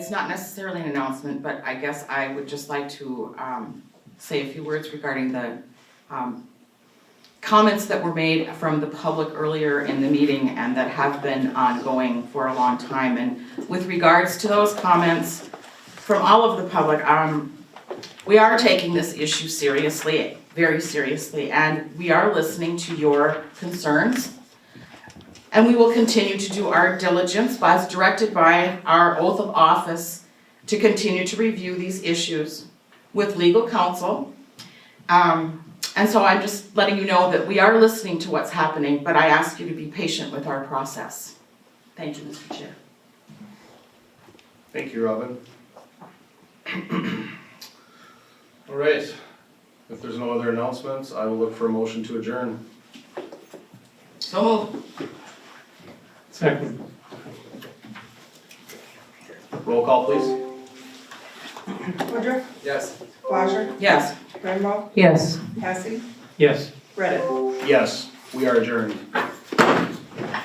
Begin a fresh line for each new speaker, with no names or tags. It's not necessarily an announcement, but I guess I would just like to um, say a few words regarding the um, comments that were made from the public earlier in the meeting and that have been ongoing for a long time. And with regards to those comments from all of the public, um, we are taking this issue seriously, very seriously, and we are listening to your concerns. And we will continue to do our diligence as directed by our oath of office to continue to review these issues with legal counsel. Um, and so I'm just letting you know that we are listening to what's happening, but I ask you to be patient with our process. Thank you, Mr. Chair.
Thank you, Robin. All right, if there's no other announcements, I will look for a motion to adjourn.
So moved.
Second.
Roll call, please.
Woodruff,
Yes.
Wajer,
Yes.
Grandma,
Yes.
Cassie,
Yes.
Reddit.
Yes, we are adjourned.